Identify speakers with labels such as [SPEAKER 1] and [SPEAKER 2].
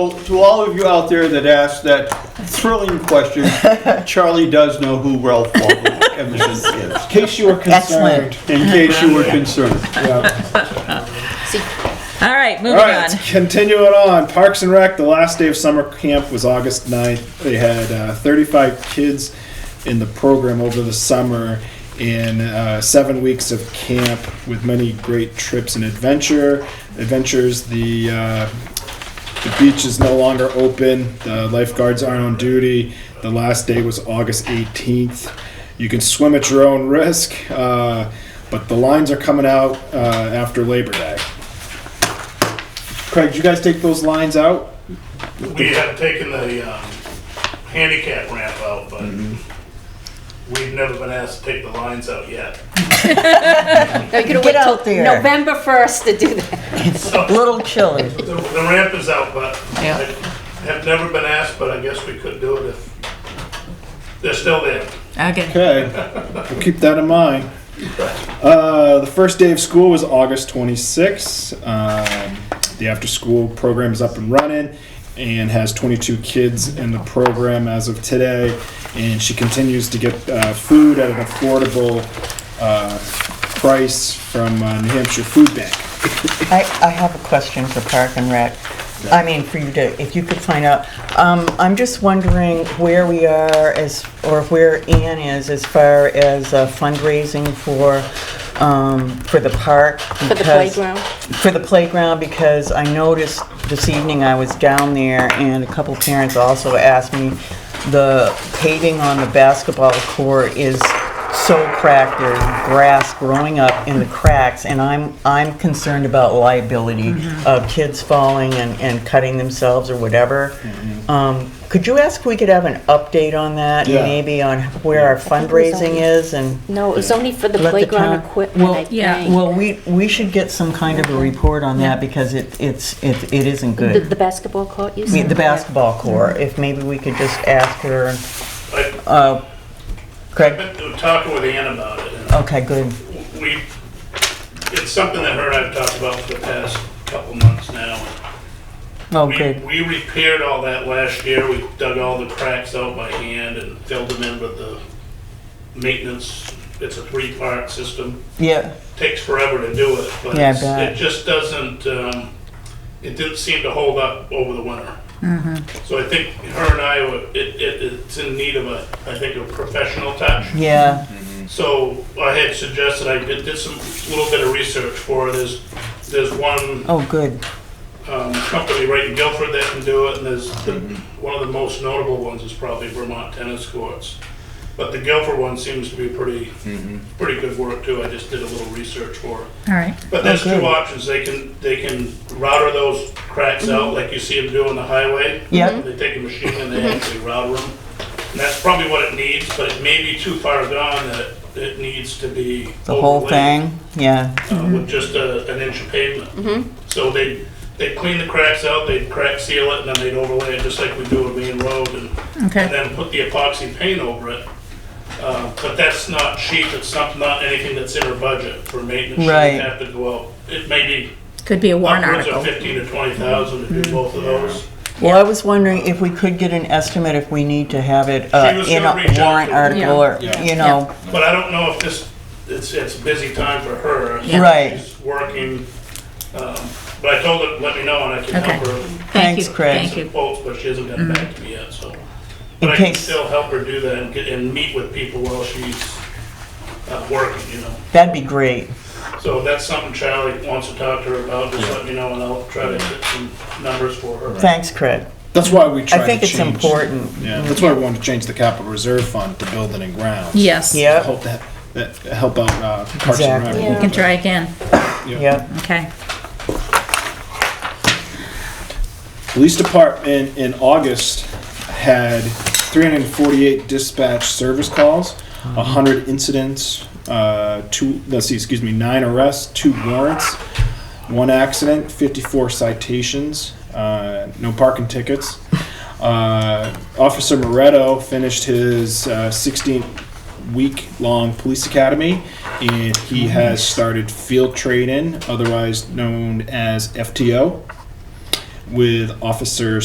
[SPEAKER 1] To all of you out there that asked that thrilling question, Charlie does know who Ralph Waldo Emerson is,
[SPEAKER 2] In case you were concerned.
[SPEAKER 3] Excellent.
[SPEAKER 1] in case you were concerned.
[SPEAKER 2] Yeah.
[SPEAKER 4] All right,
[SPEAKER 2] All
[SPEAKER 4] moving on.
[SPEAKER 2] right, continuing on. Parks and Rec, the last day of summer camp was August 9th. They had uh, 35 kids in the program over the summer in uh, seven weeks of camp with many great trips and adventure adventures. The uh, The beach is no longer open. The lifeguards aren't on duty. The last day was August 18th. You can swim at your own risk, uh, but the lines are coming out uh, after Labor Day. Craig, did you guys take those lines out?
[SPEAKER 5] We have taken the um, handicap ramp out, but we've never been asked to take the lines out yet.
[SPEAKER 3] No, you
[SPEAKER 6] Get out there.
[SPEAKER 3] November 1st to do that.
[SPEAKER 6] Little chilly.
[SPEAKER 5] The the ramp is out, but
[SPEAKER 4] Yeah.
[SPEAKER 5] I have never been asked, but I guess we could do it if they're still there.
[SPEAKER 4] Okay.
[SPEAKER 2] Okay, we'll keep that in mind. Uh, the first day of school was August 26th. Um, the after school program is up and running and has 22 kids in the program as of today. And she continues to get uh, food at an affordable uh, price from uh, New Hampshire Food Bank.
[SPEAKER 6] I, I have a question for Park and Rec. I mean, for you to, if you could find out. Um, I'm just wondering where we are as, or where Ann is as far as uh, fundraising for, um, for the park.
[SPEAKER 3] For the playground?
[SPEAKER 6] For the playground, because I noticed this evening I was down there and a couple parents also asked me, the paving on the basketball court is so cracked, there's grass growing up in the cracks, and I'm, I'm concerned about liability
[SPEAKER 3] Mm-hmm.
[SPEAKER 6] of kids falling and, and cutting themselves or whatever.
[SPEAKER 3] Mm-hmm.
[SPEAKER 6] Um, Could you ask if we could have an update on that? and
[SPEAKER 2] Yeah.
[SPEAKER 6] Maybe on where our
[SPEAKER 3] think it was on-
[SPEAKER 6] fundraising is and?
[SPEAKER 3] No, it was only for the
[SPEAKER 6] Let the
[SPEAKER 3] playground
[SPEAKER 6] town-
[SPEAKER 3] equipment, I
[SPEAKER 6] Well,
[SPEAKER 4] yeah,
[SPEAKER 3] think.
[SPEAKER 6] Well, we, we should get some kind of a report on that because it, it's, it it isn't
[SPEAKER 3] The
[SPEAKER 6] good.
[SPEAKER 3] the basketball court, you
[SPEAKER 6] I mean,
[SPEAKER 3] said?
[SPEAKER 6] The basketball court, if maybe we could just ask her,
[SPEAKER 5] I-
[SPEAKER 6] uh,
[SPEAKER 5] I've
[SPEAKER 6] Craig,
[SPEAKER 5] been talking with Ann about it, and
[SPEAKER 6] okay, good.
[SPEAKER 5] we, it's something that her and I have talked about for the past couple months now.
[SPEAKER 6] Oh,
[SPEAKER 5] We-
[SPEAKER 6] good,
[SPEAKER 5] We repaired all that last year. We dug all the cracks out by hand and filled them in with the maintenance. It's a three-part system.
[SPEAKER 6] yeah,
[SPEAKER 5] Takes forever to do it, but
[SPEAKER 6] Yeah, I
[SPEAKER 5] it's-
[SPEAKER 6] bet.
[SPEAKER 5] it just doesn't, um, it didn't seem to hold up over the winter.
[SPEAKER 6] Mm-hmm.
[SPEAKER 5] So I think her and I, were- it, it, it's in need of a, I think, a professional touch.
[SPEAKER 6] yeah,
[SPEAKER 5] So I had suggested, I did, did some, little bit of research for her. There's, there's one
[SPEAKER 6] oh, good,
[SPEAKER 5] um, company right in Guilford that can do it, and there's, the- one of the most notable ones is probably Vermont Tennis Courts. But the Guilford one seems to be pretty, pretty good work too, I just did a little research for it.
[SPEAKER 4] All right.
[SPEAKER 5] But there's
[SPEAKER 6] good.
[SPEAKER 5] two options, they can, they can router those cracks
[SPEAKER 6] Mm-hmm.
[SPEAKER 5] out like you see them do on the highway.
[SPEAKER 6] Yeah.
[SPEAKER 5] They take a machine and
[SPEAKER 6] Mm-hmm.
[SPEAKER 5] they actually router them, and that's probably what it needs, but it may be too far gone that it needs to be.
[SPEAKER 6] the whole
[SPEAKER 5] overlaid
[SPEAKER 6] thing, yeah,
[SPEAKER 5] uh, with just a, an inch of pavement.
[SPEAKER 4] Mm-hmm.
[SPEAKER 5] So they, they clean the cracks out, they'd crack seal it, and then they'd overlay it just like we do a main road and,
[SPEAKER 4] Okay.
[SPEAKER 5] and then put the epoxy paint over it. Uh, but that's not cheap, it's not, not anything that's in our budget for maintenance. She'd
[SPEAKER 6] Right.
[SPEAKER 5] Have to go out, it may be
[SPEAKER 4] Could be a warrant
[SPEAKER 5] upwards of
[SPEAKER 4] article. Mm-hmm.
[SPEAKER 5] fifteen to twenty thousand to do both of those.
[SPEAKER 6] Well, I was wondering if we could get an estimate if we need to have it uh,
[SPEAKER 5] She was
[SPEAKER 6] in
[SPEAKER 5] gonna reach out
[SPEAKER 6] a
[SPEAKER 5] to
[SPEAKER 6] warrant
[SPEAKER 5] them.
[SPEAKER 6] article or, you know,
[SPEAKER 5] But I don't know if this, it's, it's a busy time for her.
[SPEAKER 4] Yeah.
[SPEAKER 6] Right.
[SPEAKER 5] She's working, um, but I told her, let me know and I can
[SPEAKER 4] Okay.
[SPEAKER 5] help her
[SPEAKER 4] Thank you,
[SPEAKER 6] Thanks, Craig.
[SPEAKER 4] Thank
[SPEAKER 5] some
[SPEAKER 4] you.
[SPEAKER 5] quotes, but she hasn't gotten back to me yet, so.
[SPEAKER 6] Mm-hmm. In
[SPEAKER 5] But I can
[SPEAKER 6] case-
[SPEAKER 5] still help her do that and get, and meet with people while she's, uh, working, you know?
[SPEAKER 6] that'd be great.
[SPEAKER 5] So if that's something Charlie wants to talk to her about, just let me know and I'll try to get some numbers for her.
[SPEAKER 6] Thanks, Craig.
[SPEAKER 2] That's why we tried
[SPEAKER 6] I think
[SPEAKER 2] to
[SPEAKER 6] it's
[SPEAKER 2] change-
[SPEAKER 6] important.
[SPEAKER 2] Yeah, that's why we wanted to change the capital reserve fund to building and grounds.
[SPEAKER 4] Yes.
[SPEAKER 6] Yeah.
[SPEAKER 5] Oh,
[SPEAKER 2] Hope that, that help out uh, Parks and Rec.
[SPEAKER 6] Exactly.
[SPEAKER 4] You can try again.
[SPEAKER 6] Yeah.
[SPEAKER 4] Okay.
[SPEAKER 2] Police Department in August had 348 dispatch service calls, 100 incidents, uh, two, let's see, excuse me, nine arrests, two warrants, one accident, 54 citations, uh, no parking tickets. Uh, Officer Moretto finished his uh, 16 week long police academy and he has started field training, otherwise known as FTO, with Officer